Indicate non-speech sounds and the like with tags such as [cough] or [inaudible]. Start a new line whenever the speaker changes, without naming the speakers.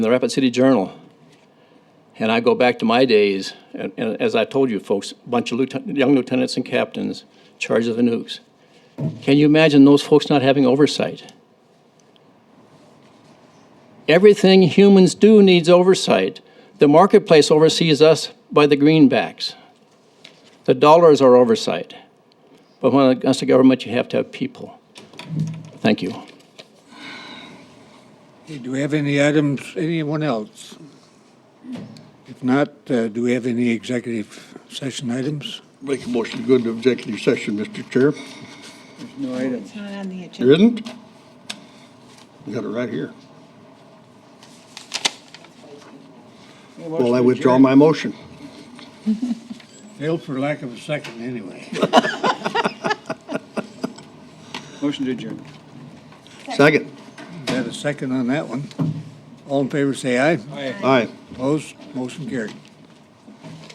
the Rapid City Journal. And I go back to my days, and, and as I told you folks, bunch of lieutenant, young lieutenants and captains, charge of the nukes. Can you imagine those folks not having oversight? Everything humans do needs oversight. The marketplace oversees us by the greenbacks. The dollars are oversight. But when it comes to government, you have to have people. Thank you.
Hey, Do we have any items, anyone else? If not, uh, do we have any executive session items?
Make a motion to go into executive session, Mr. Chair.
No items.
It's not on the
There
agenda.
isn't? We got it right here. Well, I withdraw my motion.
Failed for lack of a second, anyway.
[laughs] Motion to adjourn.
Second.
Got a second on that one. All in favor, say aye.
Aye.
Opposed, motion carried.